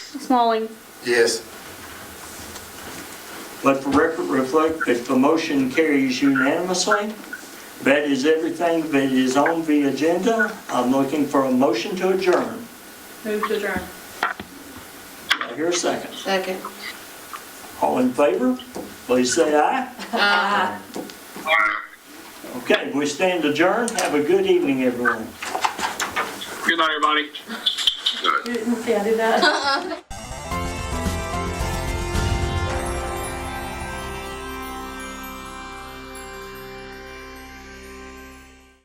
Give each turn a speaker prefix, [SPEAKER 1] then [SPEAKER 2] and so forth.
[SPEAKER 1] Smalling.
[SPEAKER 2] Yes.
[SPEAKER 3] Let the record reflect that the motion carries unanimously. That is everything that is on the agenda. I'm looking for a motion to adjourn.
[SPEAKER 1] Move to adjourn.
[SPEAKER 3] Do I hear a second.
[SPEAKER 4] Second.
[SPEAKER 3] All in favor, please say aye. Okay, we stand adjourned. Have a good evening, everyone.
[SPEAKER 5] Good night, everybody.
[SPEAKER 1] You didn't see I did that.